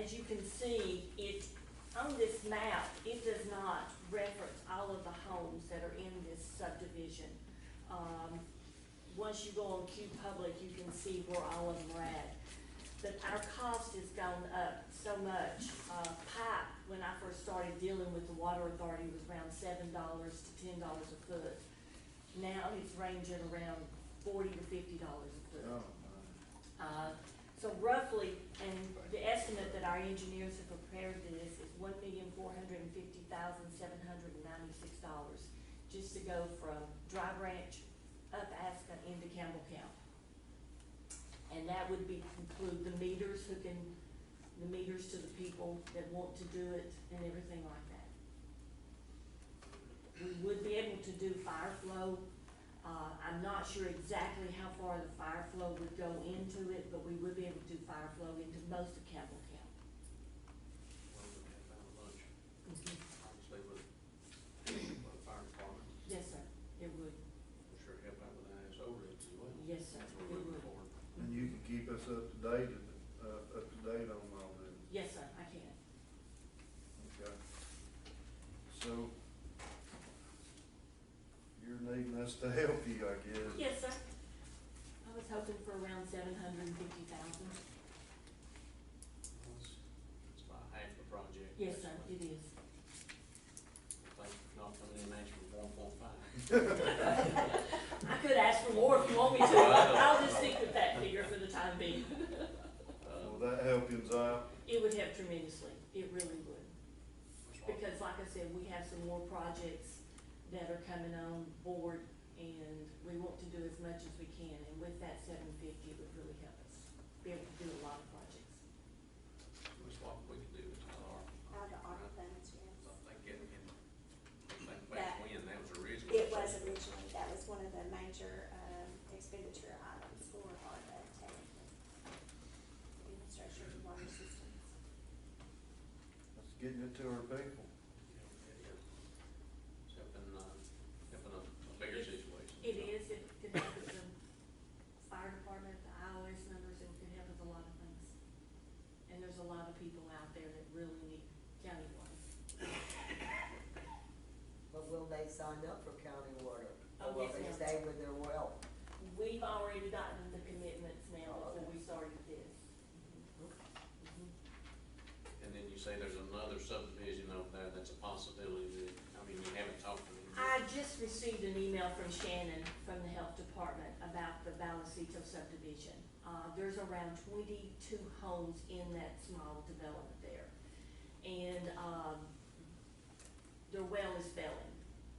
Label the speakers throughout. Speaker 1: as you can see, it, on this map, it does not reference all of the homes that are in this subdivision. Um, once you go on Q Public, you can see where all of them are at. But our cost has gone up so much. Uh, pipe, when I first started dealing with the water authority, was around seven dollars to ten dollars a foot. Now it's ranging around forty to fifty dollars a
Speaker 2: Oh,
Speaker 1: foot. Uh, So roughly, and the estimate that our engineers have prepared for this is one million four hundred and fifty thousand seven hundred and ninety-six dollars just to go from Dry Branch up Aspen into Campbell County. And that would be, include the meters hooking, the meters to the people that want to do it and everything like that. We would be able to do fire flow uh, I'm not sure exactly how far the fire flow would go into it, but we would be able to do fire flow into most of Campbell County.
Speaker 3: obviously with, with the fire department,
Speaker 1: Yes, sir, it would,
Speaker 3: I'm sure help out with that as overhead as well.
Speaker 1: yes, sir,
Speaker 3: As
Speaker 1: it
Speaker 3: we're moving
Speaker 1: would,
Speaker 3: forward.
Speaker 2: And you can keep us up to date, and, uh, up to date on all this,
Speaker 1: yes, sir, I can.
Speaker 2: okay? So, you're needing us to help you, I guess.
Speaker 1: Yes, sir. I was hoping for around seven hundred and fifty thousand.
Speaker 3: Well, It's it's about half the project.
Speaker 1: Yes, sir, it
Speaker 3: basically.
Speaker 1: is.
Speaker 3: Thank you for not coming in and asking for one point five.
Speaker 1: I could ask for more if you want me to, I'll just stick with that figure for the time being.
Speaker 3: Uh,
Speaker 2: Will that help him out?
Speaker 1: It would help tremendously, it really would. Because like I said, we have some more projects that are coming on board and we want to do as much as we can. And with that seven fifty, it would really help us be able to do a lot of projects.
Speaker 3: That's what we could do with our,
Speaker 4: Out of ARPA funds, yes.
Speaker 3: I think getting him, I think back
Speaker 4: That-
Speaker 3: when, that was original.
Speaker 4: It was originally, that was one of the major, um, expenditure items for ARPA technically. Infrastructure and water systems.
Speaker 2: That's getting it to our people.
Speaker 3: It's helping, uh, helping a a bigger situation.
Speaker 1: It is, it could help with the fire department, the IOS numbers, it could help with a lot of things. And there's a lot of people out there that really need county water.
Speaker 5: But will they sign up for county water?
Speaker 1: Oh,
Speaker 5: Or will
Speaker 1: yes,
Speaker 5: they
Speaker 1: ma'am.
Speaker 5: stay with their well?
Speaker 1: We've already gotten the commitments now before we started this.
Speaker 3: And then you say there's another subdivision over there that's a possibility that, I mean, we haven't talked to them.
Speaker 1: I just received an email from Shannon from the health department about the Vallecito subdivision. Uh, there's around twenty-two homes in that small development there. And, um, their well is failing,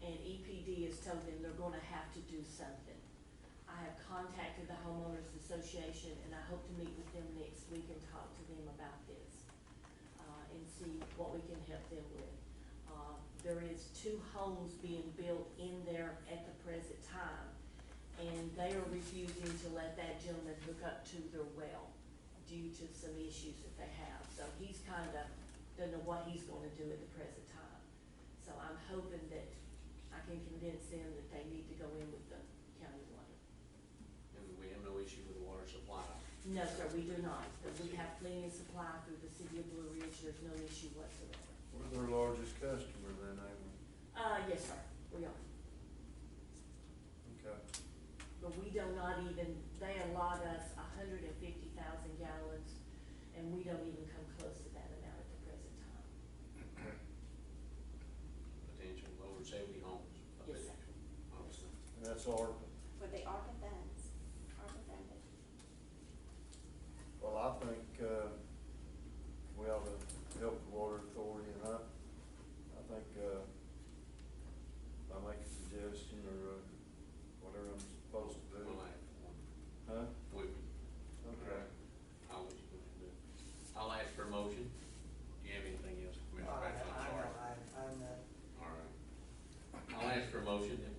Speaker 1: and EPD has told them they're gonna have to do something. I have contacted the homeowners association, and I hope to meet with them next week and talk to them about this, uh, and see what we can help them with. Uh, there is two homes being built in there at the present time, and they are refusing to let that gentleman hook up to their well due to some issues that they have, so he's kind of, doesn't know what he's gonna do at the present time. So I'm hoping that I can convince them that they need to go in with the county water.
Speaker 3: And we have no issue with the water supply.
Speaker 1: No, sir, we do not, but we have plenty of supply through the city of Blue Ridge, there's no issue whatsoever.
Speaker 2: We're their largest customer then, ain't
Speaker 1: Uh, yes, sir, we are.
Speaker 2: we? Okay.
Speaker 1: But we do not even, they allot us a hundred and fifty thousand gallons, and we don't even come close to that amount at the present time.
Speaker 3: potential over seventy homes. I
Speaker 1: Yes, sir.
Speaker 3: think, Obviously.
Speaker 2: And that's ARPA.
Speaker 4: For the ARPA funds, ARPA funded.
Speaker 2: Well, I think, uh, we ought to help the water authority, and I, I think, uh, if I make a suggestion or, uh, whatever I'm supposed to do.
Speaker 3: We'll add one.
Speaker 2: Huh?
Speaker 3: We, we,
Speaker 2: Okay.
Speaker 3: I'll let you go ahead and do it. I'll ask for a motion. Do you have anything else, Commissioner
Speaker 5: All right,
Speaker 3: Bradshaw?
Speaker 5: I
Speaker 3: Sorry.
Speaker 5: know, I, I'm, uh,
Speaker 3: All right. I'll ask for a motion that um, uh,
Speaker 2: uh,